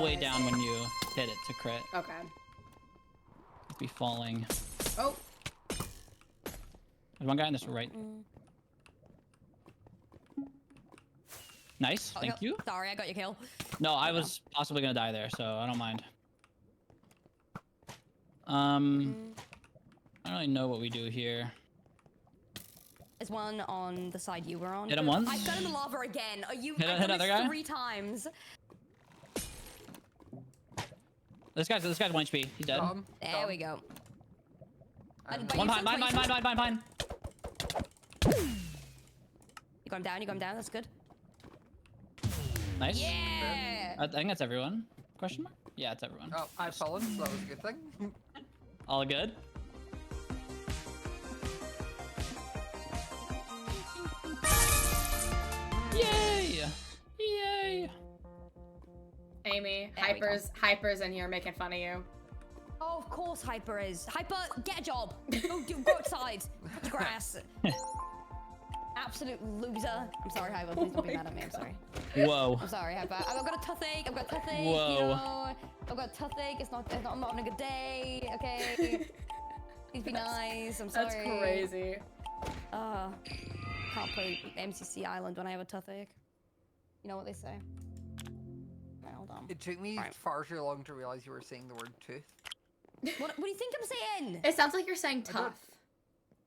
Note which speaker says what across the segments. Speaker 1: way down when you hit it to crit.
Speaker 2: Okay.
Speaker 1: It'd be falling. There's
Speaker 2: Oh,
Speaker 1: one guy on this right.
Speaker 3: Mm.
Speaker 1: Nice,
Speaker 3: Oh,
Speaker 1: thank
Speaker 3: no.
Speaker 1: you.
Speaker 3: Sorry, I got your kill.
Speaker 1: No, I was possibly gonna die there, so I don't mind. Um,
Speaker 3: Mm.
Speaker 1: I don't really know what we do here.
Speaker 3: There's one on the side you were on.
Speaker 1: Hit him once.
Speaker 3: I've got him in the lava again. Are you?
Speaker 1: Hit-
Speaker 3: I've
Speaker 1: hit
Speaker 3: done this
Speaker 1: another guy.
Speaker 3: Three times.
Speaker 1: This guy's this guy's one HP. He's
Speaker 3: Oh,
Speaker 1: dead.
Speaker 4: Dom,
Speaker 3: There
Speaker 4: Dom.
Speaker 3: we go. But-
Speaker 4: I don't
Speaker 3: but
Speaker 1: one
Speaker 3: you
Speaker 1: behind, mine,
Speaker 3: took
Speaker 1: mine,
Speaker 3: 20
Speaker 1: mine, mine, mine, mine.
Speaker 3: You got him down. You got him down. That's good.
Speaker 1: Nice.
Speaker 3: Yeah.
Speaker 1: I think that's everyone. Question mark? Yeah, it's everyone.
Speaker 4: know. Oh, I've fallen, so that was a good thing.
Speaker 1: All good. Yay! Yay!
Speaker 2: Amy,
Speaker 3: There we go.
Speaker 2: hypers, hypers in here making fun of you.
Speaker 3: Oh, of course, Hyper is. Hyper, get a job. Go, do, go outside. Cut the grass. Absolute loser. I'm sorry, Hyper.
Speaker 1: Oh
Speaker 3: Please don't be mad at me. I'm sorry.
Speaker 1: Whoa.
Speaker 3: I'm sorry, Hyper. I've I've got a toothache. I've got a toothache.
Speaker 1: Whoa.
Speaker 3: You know, I've got a toothache. It's not. It's not I'm not on a good day. Okay. Please be nice. I'm sorry.
Speaker 2: That's crazy.
Speaker 3: Uh, can't play MCC Island when I have a toothache. You know what they say. Right, hold on.
Speaker 4: It took me
Speaker 3: Right.
Speaker 4: far too long to realize you were saying the word tooth.
Speaker 3: What, what do you think I'm saying?
Speaker 2: It sounds like you're saying tough.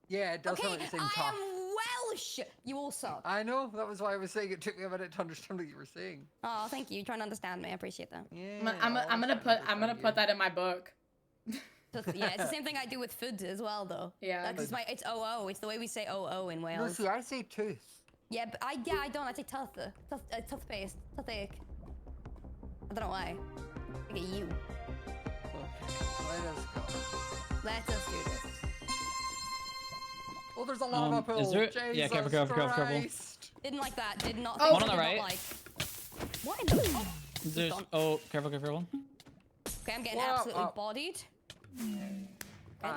Speaker 4: Yeah, it does
Speaker 3: okay,
Speaker 4: sound like you're saying
Speaker 3: I
Speaker 4: tough.
Speaker 3: am Welsh. You all suck.
Speaker 4: I know, that was why I was saying it took me a minute to understand what you were saying.
Speaker 3: Oh, thank you. You're trying to understand me. I appreciate that.
Speaker 4: Yeah.
Speaker 2: I'm, I'm,
Speaker 4: I
Speaker 2: I'm gonna
Speaker 4: wanna
Speaker 2: put I'm gonna
Speaker 4: understand
Speaker 2: put
Speaker 4: you.
Speaker 2: that in my book.
Speaker 3: Tooth- yeah, it's the same thing I do with food as well, though.
Speaker 2: Yeah.
Speaker 3: That's just my. It's OO. It's the way we say OO in
Speaker 4: No,
Speaker 3: Wales.
Speaker 4: see, I say tooth.
Speaker 3: Yeah, but I yeah I don't. I say tough, tough, uh, toothpaste, toothache. I don't know why. Look at you.
Speaker 4: Let us go.
Speaker 3: Let us do this.
Speaker 4: Oh, there's a lava
Speaker 1: Um,
Speaker 4: pool.
Speaker 1: is there-
Speaker 4: Jesus
Speaker 1: yeah, careful, careful, careful, careful.
Speaker 4: Christ.
Speaker 3: Didn't like that. Did not.
Speaker 2: Oh. One
Speaker 3: think so,
Speaker 2: on
Speaker 1: the
Speaker 3: did not
Speaker 1: right.
Speaker 3: like. What in the? Oh.
Speaker 1: There's
Speaker 3: Dom-
Speaker 1: oh, careful, careful.
Speaker 3: Okay, I'm getting
Speaker 4: Whoa,
Speaker 3: absolutely
Speaker 4: oh.
Speaker 3: bodied. Okay,
Speaker 4: Alright.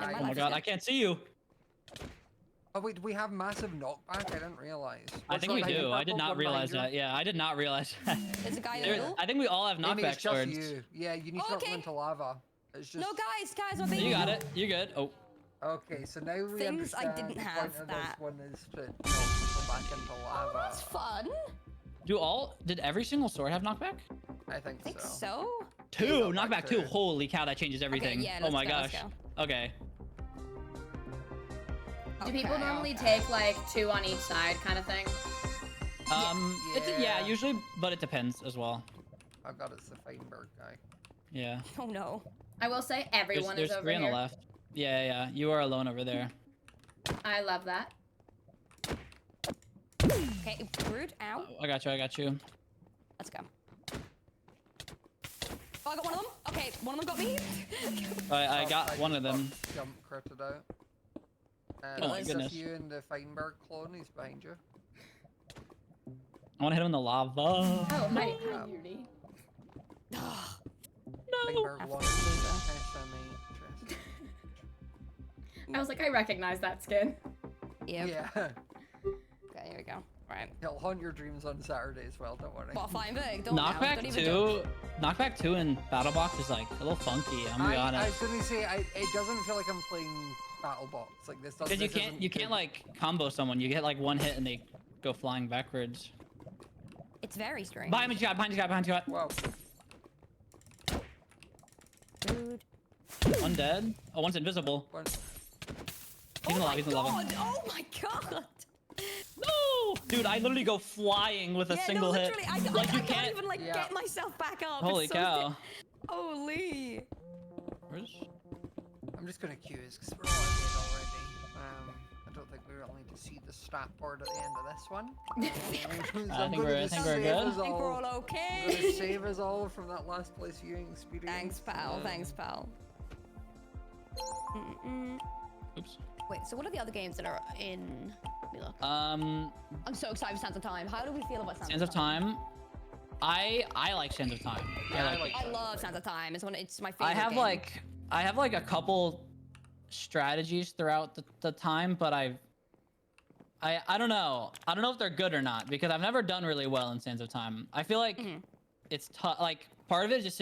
Speaker 1: Oh
Speaker 3: never mind,
Speaker 4: Oh
Speaker 1: my
Speaker 3: that's
Speaker 1: god,
Speaker 3: good.
Speaker 1: I can't see you.
Speaker 4: Oh wait, do we have massive knockback? I didn't realize.
Speaker 1: I
Speaker 4: What's
Speaker 1: think
Speaker 4: that
Speaker 1: we
Speaker 4: behind you,
Speaker 1: do. I
Speaker 4: purple?
Speaker 1: did
Speaker 4: One
Speaker 1: not
Speaker 4: behind
Speaker 1: realize
Speaker 4: you?
Speaker 1: that. Yeah, I did not realize that.
Speaker 3: There's a guy in the
Speaker 1: There-
Speaker 3: middle.
Speaker 1: I think we all have
Speaker 4: Maybe
Speaker 1: knockback
Speaker 4: it's just
Speaker 1: swords.
Speaker 4: you. Yeah, you need
Speaker 3: Oh,
Speaker 4: to not
Speaker 3: okay.
Speaker 4: go into lava. It's just.
Speaker 3: No, guys, guys, I'm
Speaker 1: You got it. You good? Oh,
Speaker 4: Okay, so now we
Speaker 3: Things I
Speaker 4: understand
Speaker 3: didn't
Speaker 4: the
Speaker 3: have
Speaker 4: point of
Speaker 3: that-
Speaker 4: this one is to knock people back into lava.
Speaker 3: That's fun.
Speaker 1: do all? Did every single sword have knockback?
Speaker 4: I think,
Speaker 3: I think
Speaker 4: so.
Speaker 3: so.
Speaker 1: Two
Speaker 4: knockback
Speaker 1: knockback two.
Speaker 4: two.
Speaker 1: Holy cow, that changes everything.
Speaker 3: yeah,
Speaker 1: oh
Speaker 3: let's
Speaker 1: my
Speaker 3: go, let's
Speaker 1: gosh. Okay.
Speaker 2: Do people
Speaker 3: Okay,
Speaker 2: normally
Speaker 3: okay.
Speaker 2: take like two on each side kind of thing?
Speaker 1: Um, yeah. It's, yeah,
Speaker 4: Yeah.
Speaker 1: usually, but it depends as well.
Speaker 4: Oh god, it's the Feinberg guy.
Speaker 1: Yeah.
Speaker 3: Oh no.
Speaker 2: I will say
Speaker 1: There's,
Speaker 2: everyone
Speaker 1: there's
Speaker 2: is over
Speaker 1: three on the
Speaker 2: here.
Speaker 1: left. Yeah, yeah, yeah. You are alone over there.
Speaker 2: I love that.
Speaker 3: Okay, rude. Ow.
Speaker 1: Oh, I got you. I got you.
Speaker 3: Let's go. Oh, I got one of them. Okay, one of them got me.
Speaker 1: I, I
Speaker 4: Oh,
Speaker 1: got one of
Speaker 4: just
Speaker 1: them.
Speaker 4: got Jump critted out. Uh,
Speaker 1: Oh
Speaker 3: my
Speaker 4: it's
Speaker 1: goodness.
Speaker 4: Just you and the Feinberg clone is behind you.
Speaker 1: I want to hit him in the lava.
Speaker 2: Oh, hi, hi,
Speaker 4: Um,
Speaker 2: Yuri.
Speaker 1: No.
Speaker 4: Feinberg one. SME.
Speaker 2: I was like, I recognize that skin.
Speaker 3: yeah.
Speaker 4: Yeah,
Speaker 3: Okay, here we go. Right.
Speaker 4: he'll haunt your dreams on Saturday as well. Don't worry.
Speaker 3: What a flying big. Don't now, don't
Speaker 1: Knockback
Speaker 3: even jump.
Speaker 1: two. Knockback two in battle box is like a little funky. I'm gonna
Speaker 4: I,
Speaker 1: be
Speaker 4: I
Speaker 1: honest.
Speaker 4: was gonna say I, it doesn't feel like I'm playing BattleBox. Like this doesn't.
Speaker 1: Because you
Speaker 4: this
Speaker 1: can't
Speaker 4: isn't
Speaker 1: you can't
Speaker 4: good.
Speaker 1: like combo someone. You get like one hit and they go flying backwards.
Speaker 3: It's very strange.
Speaker 1: Behind me, Scott. Behind you, Scott. Behind you, Scott.
Speaker 4: Wow.
Speaker 3: Rude.
Speaker 1: One dead. Oh, one's invisible.
Speaker 4: One,
Speaker 1: He's in the
Speaker 3: oh
Speaker 1: lava.
Speaker 3: my
Speaker 1: He's in the lava.
Speaker 3: god! Oh my god!
Speaker 1: No, dude, I literally go flying with a
Speaker 3: yeah,
Speaker 1: single
Speaker 3: no,
Speaker 1: hit.
Speaker 3: literally, I, I,
Speaker 1: like
Speaker 3: I,
Speaker 1: you
Speaker 3: can't,
Speaker 1: can't.
Speaker 3: even like
Speaker 4: Yeah.
Speaker 3: get myself back up.
Speaker 1: Holy
Speaker 3: it's so
Speaker 1: cow.
Speaker 3: di- Holy.
Speaker 1: Where's?
Speaker 4: I'm just gonna queue this because we're all dead already. Um, I don't think we all need to see the stat board at the end of this one. Um, So
Speaker 1: I
Speaker 4: I'm
Speaker 1: think
Speaker 4: gonna
Speaker 1: we're- I
Speaker 4: just
Speaker 1: think we're
Speaker 4: save
Speaker 1: good.
Speaker 4: us
Speaker 3: I think we're
Speaker 4: all.
Speaker 3: all
Speaker 4: I'm gonna
Speaker 3: okay.
Speaker 4: save us all from that last place viewing experience.
Speaker 3: Thanks, pal.
Speaker 4: Um,
Speaker 3: Thanks, pal. Mm-mm.
Speaker 1: Oops.
Speaker 3: Wait, so what are the other games that are in? Let me look.
Speaker 1: Um,
Speaker 3: I'm so excited for Sands of Time. How do we feel about Sands,
Speaker 1: Sands of Time. I I like Sands of Time.
Speaker 4: Yeah, I
Speaker 1: I like.
Speaker 4: like
Speaker 1: it.
Speaker 3: I love Sands of Time. It's one. It's my favorite.
Speaker 1: I have
Speaker 3: game.
Speaker 1: like I have like a couple strategies throughout the, the time, but I've. I, I don't know. I don't know if they're good or not because I've never done really well in Sands of Time. I feel like it's tough. Like part of it is just